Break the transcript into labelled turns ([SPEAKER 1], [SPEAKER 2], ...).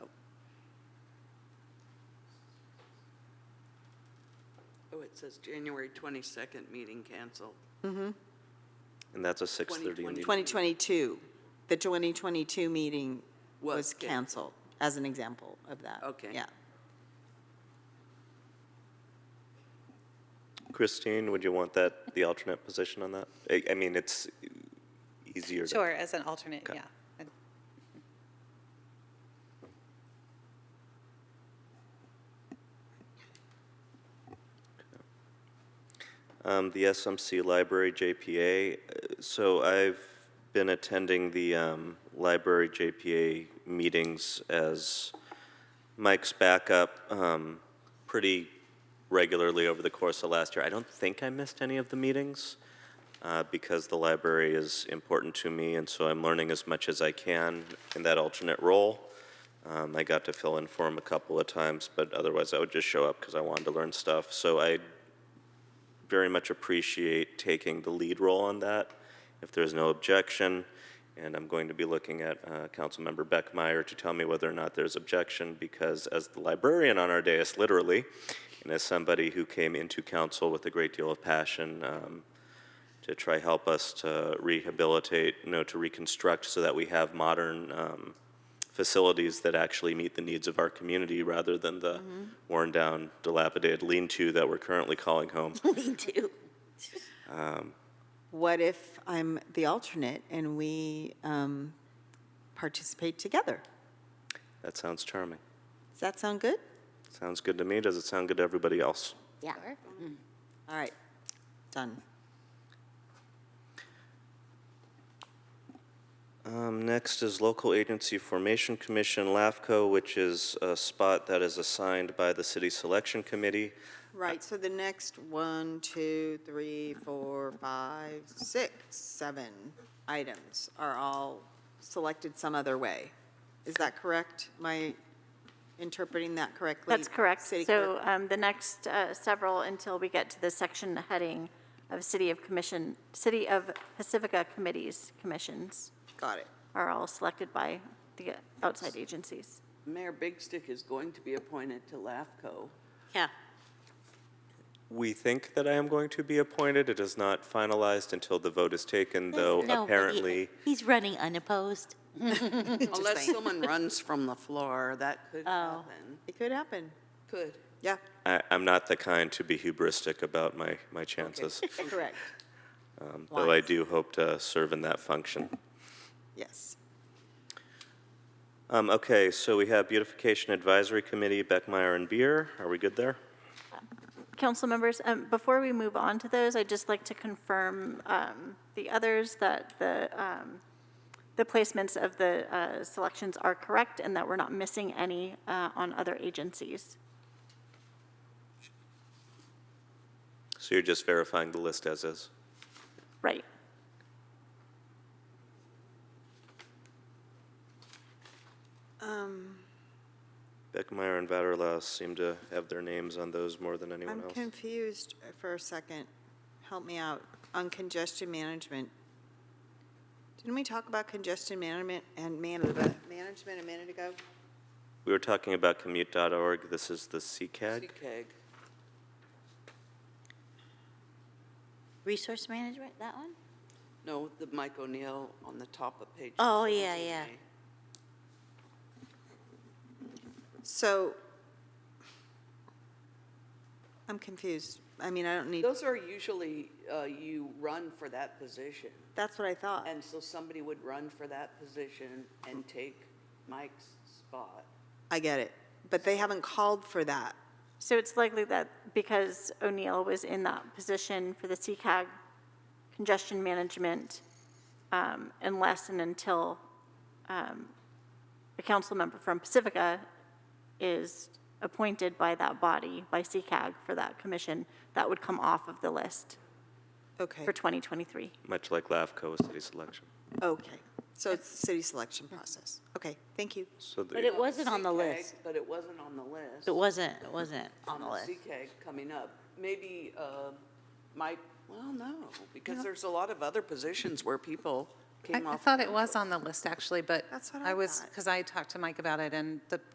[SPEAKER 1] Oh, it says January 22nd, meeting canceled.
[SPEAKER 2] And that's a 6:30 in the
[SPEAKER 1] 2020.
[SPEAKER 3] 2022, the 2022 meeting
[SPEAKER 1] Was
[SPEAKER 3] was
[SPEAKER 1] canceled.
[SPEAKER 3] canceled, as an example of that.
[SPEAKER 1] Okay.
[SPEAKER 3] Yeah.
[SPEAKER 2] Christine, would you want that, the alternate position on that? I, I mean, it's easier. to-
[SPEAKER 4] Sure, as an alternate,
[SPEAKER 2] Okay.
[SPEAKER 4] yeah. And
[SPEAKER 2] Um, the SMC Library JPA, uh, so I've been attending the, um, Library JPA meetings as Mike's backup, um, pretty regularly over the course of last year. I don't think I missed any of the meetings, uh, because the library is important to me, and so I'm learning as much as I can in that alternate role. Um, I got to fill in for him a couple of times, but otherwise I would just show up because I wanted to learn stuff. So I very much appreciate taking the lead role on that, if there's no objection. And I'm going to be looking at uh, Councilmember Beckmeyer to tell me whether or not there's objection, because as the librarian on our dais, literally, and as somebody who came into council with a great deal of passion um, to try help us to rehabilitate, you know, to reconstruct so that we have modern um, facilities that actually meet the needs of our community rather than the worn down, dilapidated lean-to that we're currently calling home.
[SPEAKER 3] Me too. What if I'm the alternate and we um, participate together?
[SPEAKER 2] That sounds charming.
[SPEAKER 3] Does that sound good?
[SPEAKER 2] Sounds good to me. Does it sound good to everybody else?
[SPEAKER 3] Yeah. All right, done.
[SPEAKER 2] Um, next is Local Agency Formation Commission, LAFCO, which is a spot that is assigned by the City Selection Committee.
[SPEAKER 3] Right, so the next one, two, three, four, five, six, seven items are all selected some other way. Is that correct? Am I interpreting that correctly?
[SPEAKER 5] That's correct.
[SPEAKER 3] City
[SPEAKER 5] So
[SPEAKER 3] clerk?
[SPEAKER 5] um, the next uh, several, until we get to the section heading of City of Commission, City of Pacifica Committees, Commissions,
[SPEAKER 3] Got it.
[SPEAKER 5] are all selected by the outside agencies.
[SPEAKER 1] Mayor Big Stick is going to be appointed to LAFCO.
[SPEAKER 3] Yeah.
[SPEAKER 2] We think that I am going to be appointed. It is not finalized until the vote is taken, though
[SPEAKER 6] No, but he-
[SPEAKER 2] apparently.
[SPEAKER 6] He's running unopposed.
[SPEAKER 1] Unless someone runs from the floor, that
[SPEAKER 6] Oh.
[SPEAKER 1] could happen.
[SPEAKER 3] It could happen.
[SPEAKER 1] Could.
[SPEAKER 3] Yeah,
[SPEAKER 2] I, I'm not the kind to be hubristic about my, my chances,
[SPEAKER 3] correct.
[SPEAKER 2] um, though I
[SPEAKER 3] Wise.
[SPEAKER 2] do hope to serve in that function.
[SPEAKER 3] Yes.
[SPEAKER 2] Um, okay, so we have Beautification Advisory Committee, Beckmeyer and Beer. Are we good there?
[SPEAKER 5] Council members, um, before we move on to those, I'd just like to confirm um, the others that the, um, the placements of the uh, selections are correct and that we're not missing any uh, on other agencies.
[SPEAKER 2] So you're just verifying the list as is?
[SPEAKER 5] Right.
[SPEAKER 3] Um,
[SPEAKER 2] Beckmeyer and Vaterlaus seem to have their names on those more than anyone
[SPEAKER 3] I'm
[SPEAKER 2] else.
[SPEAKER 3] confused for a second. Help me out. On congestion management. Didn't we talk about congestion management and man- uh, management a minute ago?
[SPEAKER 2] We were talking about commute.org. This is the CCAG.
[SPEAKER 1] CCAG.
[SPEAKER 6] Resource management, that one?
[SPEAKER 1] No, the Mike O'Neill on the top of page.
[SPEAKER 6] Oh, yeah,
[SPEAKER 1] 17A.
[SPEAKER 6] yeah.
[SPEAKER 3] So, I'm confused. I mean, I don't need,
[SPEAKER 1] Those are usually, uh, you run for that position.
[SPEAKER 3] that's what I
[SPEAKER 6] Uh.
[SPEAKER 3] thought.
[SPEAKER 1] And so somebody would run for that position and take Mike's spot.
[SPEAKER 3] I get it. But they haven't called for that.
[SPEAKER 5] So it's likely that because O'Neill was in that position for the CCAG congestion management, um, unless and until um, a council member from Pacifica is appointed by that body, by CCAG for that commission, that would come off of the list
[SPEAKER 3] Okay,
[SPEAKER 5] for 2023.
[SPEAKER 2] Much like LAFCO with city selection.
[SPEAKER 3] okay. So it's the city selection process. Okay, thank you.
[SPEAKER 2] So the-
[SPEAKER 6] But it wasn't on the
[SPEAKER 1] CCAG,
[SPEAKER 6] list.
[SPEAKER 1] But it wasn't on the list.
[SPEAKER 6] It wasn't, it wasn't on the list.
[SPEAKER 1] CCAG coming up. Maybe uh, Mike, well, no, because there's a lot of other positions where people
[SPEAKER 4] I
[SPEAKER 1] came
[SPEAKER 4] I
[SPEAKER 1] off.
[SPEAKER 4] thought it was on the list, actually, but
[SPEAKER 3] That's what I
[SPEAKER 4] I was,
[SPEAKER 3] thought.
[SPEAKER 4] because I talked to Mike about it, and the